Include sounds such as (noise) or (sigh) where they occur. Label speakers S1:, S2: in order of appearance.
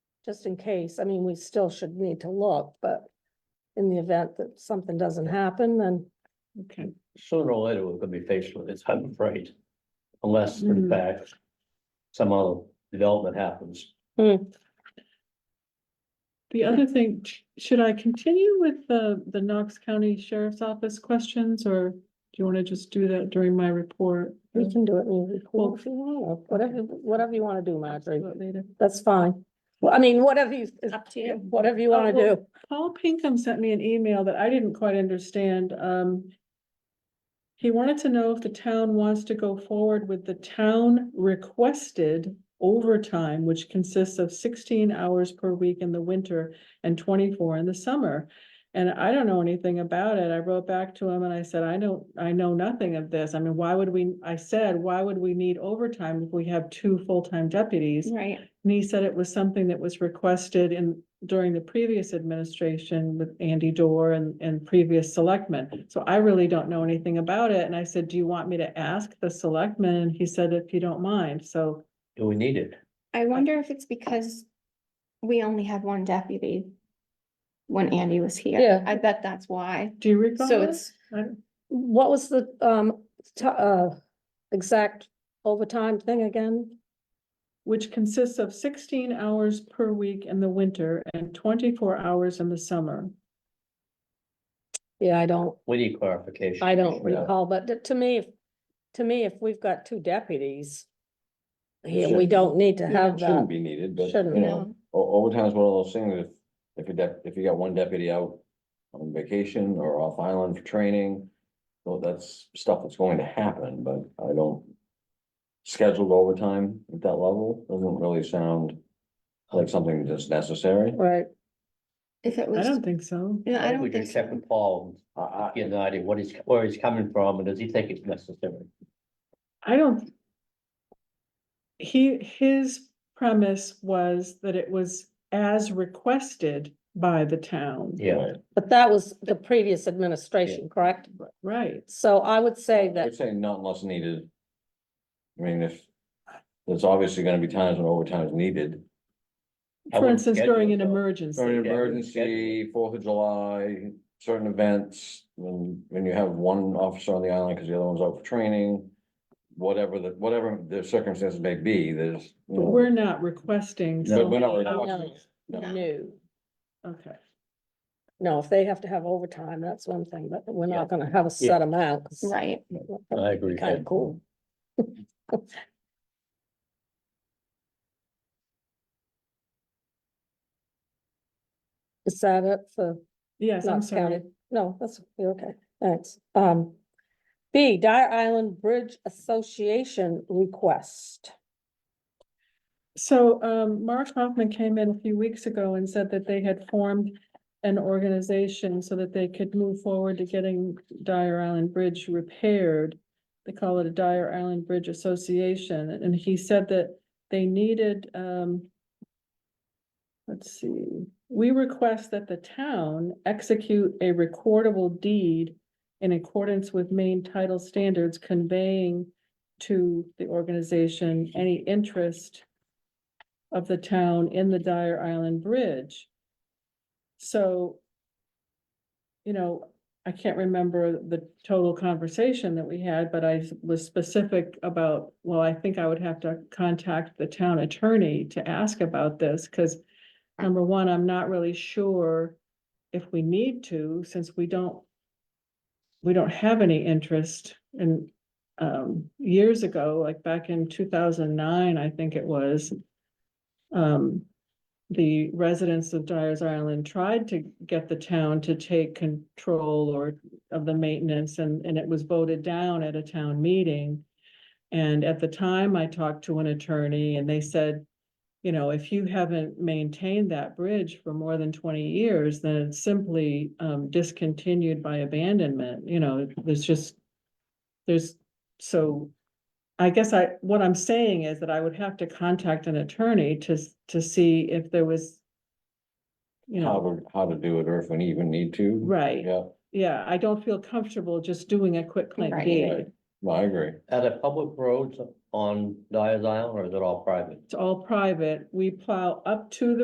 S1: just in case. I mean, we still should need to look, but in the event that something doesn't happen, then
S2: Okay.
S3: sooner or later, we're gonna be faced with this, I'm afraid. Unless
S2: Mhm.
S3: in fact, some other development happens.
S2: The other thing, sh- should I continue with the, the Knox County Sheriff's Office questions, or do you want to just do that during my report?
S1: we can do it in the
S2: Mm. Well-
S1: report if you want, or whatever, whatever you want to do, Marjorie.
S2: About Later.
S1: That's fine. Well, I mean, whatever you, it's up to you, whatever you want to
S2: well-
S1: do.
S2: Paul Pinkham sent me an email that I didn't quite understand, um. He wanted to know if the town wants to go forward with the town requested overtime, which consists of sixteen hours per week in the winter. And twenty-four in the summer, and I don't know anything about it, I wrote back to him and I said, I don't, I know nothing of this, I mean, why would we? I said, why would we need overtime if we have two full-time deputies?
S4: Right.
S2: And he said it was something that was requested in, during the previous administration with Andy Dorr and, and previous selectmen. So I really don't know anything about it. And I said, do you want me to ask the selectmen? And he said, if you don't mind, so.
S3: Do we need it?
S4: I wonder if it's because we only had one deputy when Andy was here.
S1: Yeah.
S4: I bet that's why.
S2: Do you recall
S4: So
S2: this?
S4: it's,
S1: What was the, um, ti- uh, exact overtime thing again?
S2: Which consists of sixteen hours per week in the winter and twenty-four hours in the summer.
S1: Yeah, I don't,
S3: We need clarification.
S1: I don't
S3: Yeah.
S1: recall, but t- to me, if- to me, if we've got two deputies. Here, we
S5: Shouldn't-
S1: don't need to have
S5: Shouldn't
S1: that.
S5: be needed, but
S1: Shouldn't,
S5: you know,
S4: no,
S5: o- overtime's one of those things, if, if you dep if you got one deputy out. On vacation or off island for training, well, that's stuff that's going to happen, but I don't. Scheduled overtime at that level doesn't really sound like something that's necessary.
S1: Right,
S4: if it
S2: I
S4: was,
S2: don't think so.
S4: no,
S3: We
S4: I don't think
S3: can check
S4: so.
S3: with Paul,
S5: I, I,
S3: get an idea what he's, where he's coming from, and does he think it's necessary?
S2: I don't. He, his premise was that it was as requested by the town.
S3: Yeah,
S1: but that was the previous administration, correct?
S2: Right,
S1: So I would say
S5: I
S1: that,
S5: would say not unless needed. I mean, if, there's obviously gonna be times when overtime is needed,
S3: I
S2: for
S3: wouldn't
S2: instance,
S3: schedule
S2: during
S3: it,
S2: an
S3: though.
S5: For
S2: emergency,
S5: an
S3: yeah, we schedule it.
S5: Oh, emergency, Fourth of July, certain events, when, when you have one officer on the island because the other one's out for training. Whatever the, whatever the circumstances may be, there's. you
S2: but
S5: know,
S2: we're not requesting.
S3: No.
S2: so
S5: We're not
S2: many hours.
S5: requesting.
S4: No.
S1: no,
S2: Okay,
S1: no, if they have to have overtime, that's one thing, but we're
S3: Yeah.
S1: not gonna have a set amount. 'cause
S4: Right.
S3: I agree.
S1: Kind of cool. (laughs) Is that it for
S2: yes, I'm
S1: Knox
S2: sorry.
S1: County? No, that's, you're okay, thanks. Um, B, Dyer Island Bridge Association request.
S2: So, um, Mark Hoffman came in a few weeks ago and said that they had formed an organization so that they could move forward to getting Dyer Island Bridge repaired. They call it a Dyer Island Bridge Association, and he said that they needed, um, let's see, we request that the town execute a recordable deed in accordance with main title standards conveying to the organization any interest of the town in the Dyer Island Bridge. So, you know, I can't remember the total conversation that we had, but I was specific about, well, I think I would have to contact the town attorney to ask about this, because number one, I'm not really sure if we need to, since we don't we don't have any interest in, um, years ago, like back in two thousand nine, I think it was. Um, the residents of Dyer's Island tried to get the town to take control or of the maintenance and, and it was voted down at a town meeting. And at the time, I talked to an attorney and they said, you know, if you haven't maintained that bridge for more than twenty years, then it's simply um discontinued by abandonment, you know, there's just. There's, so I guess I, what I'm saying is that I would have to contact an attorney to s- to see if there was. You
S5: How
S2: know,
S5: to, how to do it or if we even need to.
S2: right,
S5: Yeah,
S2: yeah, I don't feel comfortable just doing a quick claim
S4: Right.
S2: deed,
S5: no, I agree.
S3: Are there public roads on Dyer's Island, or is it all private?
S2: it's all private, we plow up to the